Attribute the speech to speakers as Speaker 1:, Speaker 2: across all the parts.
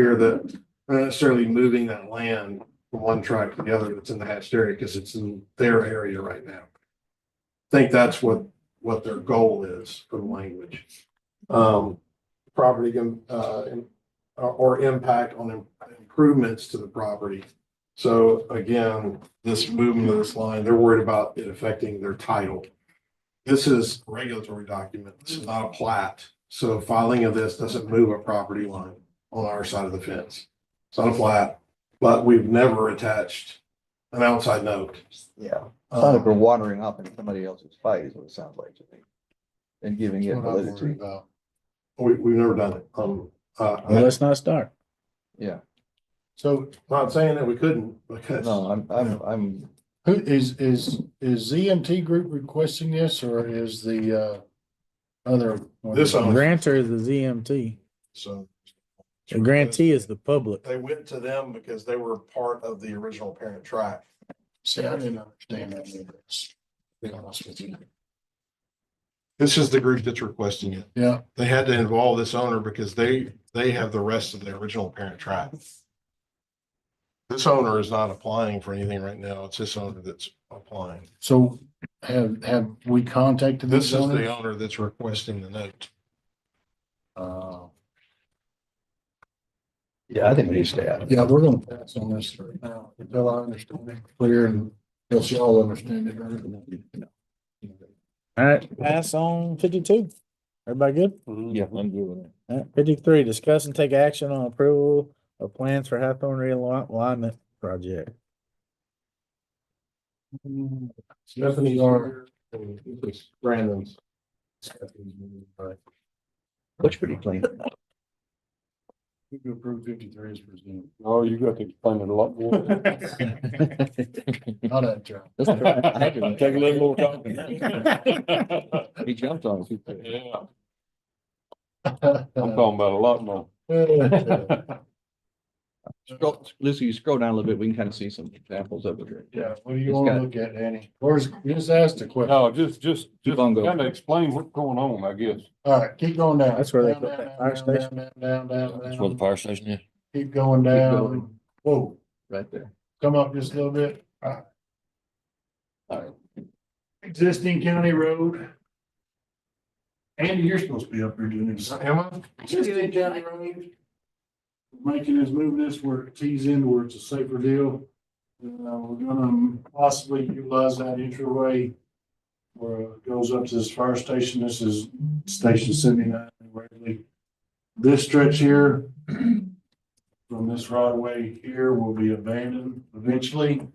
Speaker 1: here that we're not necessarily moving that land from one tract to the other that's in the hatched area because it's in their area right now. Think that's what, what their goal is for the language. Um, property, uh, or- or impact on improvements to the property. So again, this movement of this line, they're worried about it affecting their title. This is a regulatory document. This is not a plat. So filing of this doesn't move a property line on our side of the fence. It's not a plat, but we've never attached an outside note.
Speaker 2: Yeah, it's not like we're
Speaker 1: Um,
Speaker 2: watering up in somebody else's fight is what it sounds like to me. And giving
Speaker 1: that's
Speaker 2: it
Speaker 1: what I'm worried
Speaker 2: validity,
Speaker 1: about. We, we've never done it. Um, uh,
Speaker 3: Well,
Speaker 1: I-
Speaker 3: let's not start.
Speaker 2: yeah,
Speaker 1: so not saying that we couldn't because.
Speaker 2: no, I'm, I'm, I'm,
Speaker 4: Who is, is, is ZMT Group requesting this or is the, uh, other? one?
Speaker 1: This owner.
Speaker 3: Grantor is the ZMT.
Speaker 1: So.
Speaker 3: The grantee is the public.
Speaker 1: They went to them because they were part of the original parent tract.
Speaker 4: See, I didn't understand that. either, to Be honest with you.
Speaker 1: This is the group that's requesting it.
Speaker 4: Yeah,
Speaker 1: They had to involve this owner because they, they have the rest of the original parent tract. This owner is not applying for anything right now. It's this owner that's applying.
Speaker 4: so have, have we contacted
Speaker 1: This
Speaker 4: this
Speaker 1: is the
Speaker 4: owner?
Speaker 1: owner that's requesting the note.
Speaker 4: Uh,
Speaker 2: yeah, I think we need to stay out. of it.
Speaker 4: Uh, yeah, we're gonna pass on this right now until I understand it clear and until y'all understand it. better.
Speaker 3: All right, pass on fifty-two. Everybody good?
Speaker 2: Yeah, I'm good with it.
Speaker 3: All right, Fifty-three, discuss and take action on approval of plans for Hathorne realignment project.
Speaker 1: Stephanie's
Speaker 4: are-
Speaker 1: Brandon's.
Speaker 2: Looks pretty clean.
Speaker 4: You can approve fifty-three is presumed.
Speaker 5: Oh, you got to explain it a lot more.
Speaker 4: Not that job.
Speaker 2: That's all right.
Speaker 5: Take a little more time.
Speaker 2: He jumped on it.
Speaker 5: Yeah, I'm talking about a lot more.
Speaker 2: Scroll- Lucy, you scroll down a little bit, we can kind of see some examples of it.
Speaker 4: Yeah, what do you
Speaker 2: It's
Speaker 4: wanna
Speaker 2: got-
Speaker 4: look at, Danny? Or is, just ask the question.
Speaker 5: No, just, just,
Speaker 2: Keep
Speaker 5: just
Speaker 2: on going.
Speaker 5: kind of explain what's going on, I guess.
Speaker 4: All right, keep going down.
Speaker 3: That's where they
Speaker 4: Down,
Speaker 3: put
Speaker 4: down,
Speaker 3: that
Speaker 4: down,
Speaker 3: fire
Speaker 4: down,
Speaker 3: station.
Speaker 4: Down, down, down,
Speaker 5: That's
Speaker 4: down.
Speaker 5: fire station is.
Speaker 4: Keep going down.
Speaker 2: going.
Speaker 4: Whoa,
Speaker 2: Right there.
Speaker 4: come up just a little bit.
Speaker 2: All right.
Speaker 4: Existing county road. Andy, you're supposed to be up here doing this.
Speaker 1: Am I?
Speaker 4: Existing county road. Making us move this where it tees in where it's a safer deal. Uh, we're gonna possibly utilize that entryway. Where it goes up to this fire station. This is station seventy-nine. in Waverly. This stretch here. From this right away here will be abandoned eventually.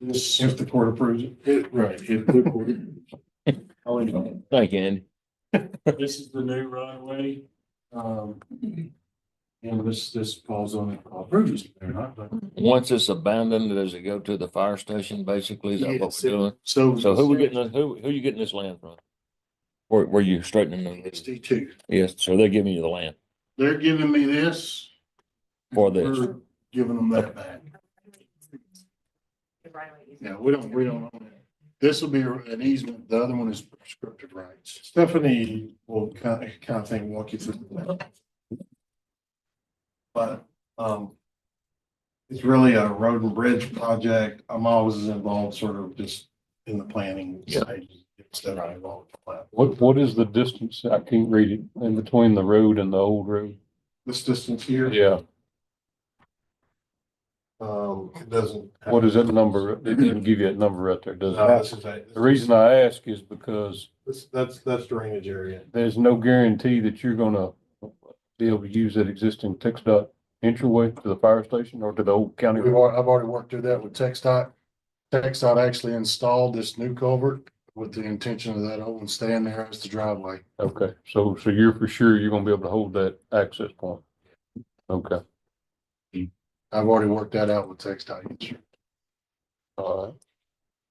Speaker 4: This, if the court approves it. it, right, if the court. Oh, anyway.
Speaker 5: Thank you, Andy.
Speaker 4: This is the new right of way. Um. And this, this falls on the approvals, they're not, but.
Speaker 5: Once it's abandoned, does it go to the fire station, basically? Is that what
Speaker 4: Yes, it-
Speaker 5: we're doing?
Speaker 4: So.
Speaker 5: So who we getting, who, who you getting this land from? Where, where you straightening the,
Speaker 4: Sixty-two.
Speaker 5: yes, so they're giving you the land
Speaker 4: They're giving me this,
Speaker 5: for this.
Speaker 4: we're giving them that back. Yeah, we don't, we don't own it. This will be an easement, the other one is prescriptive rights.
Speaker 1: Stephanie will kind of, kind of thing walk you through. that. But, um, it's really a road and bridge project. I'm always as involved sort of just in the planning
Speaker 5: Yeah.
Speaker 1: side. Instead of involved with the plan.
Speaker 6: What, what is the distance? I can't read it. In between the road and the old road?
Speaker 1: This distance here,
Speaker 6: Yeah,
Speaker 1: um, it doesn't.
Speaker 6: what is that number? It didn't give you that number right there, does
Speaker 1: No,
Speaker 6: it?
Speaker 1: this is a-
Speaker 6: The reason I ask is because
Speaker 1: This, that's, that's drainage area.
Speaker 6: there's no guarantee that you're gonna be able to use that existing text dot entryway to the fire station or to the old county
Speaker 4: We've,
Speaker 6: road.
Speaker 4: al- I've already worked through that with TechStot. TechStot actually installed this new culvert with the intention of that old one staying there as the driveway.
Speaker 6: Okay, so, so you're for sure you're gonna be able to hold that access point? Okay,
Speaker 4: I've already worked that out with TechStot.
Speaker 6: all right.
Speaker 4: Like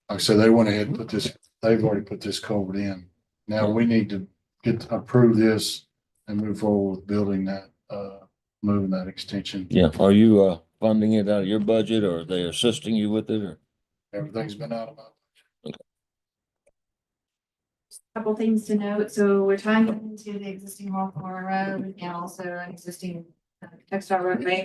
Speaker 4: I said, they went ahead and put this, they've already put this culvert in. Now we need to get, approve this and move forward with building that, uh, moving that extension.
Speaker 5: Yeah, are you, uh, funding it out of your budget or are they assisting you with it or?
Speaker 4: Everything's been out of my.
Speaker 7: Couple things to note, so we're tying it into the existing Hawthorne Road and also an existing Textile Road Main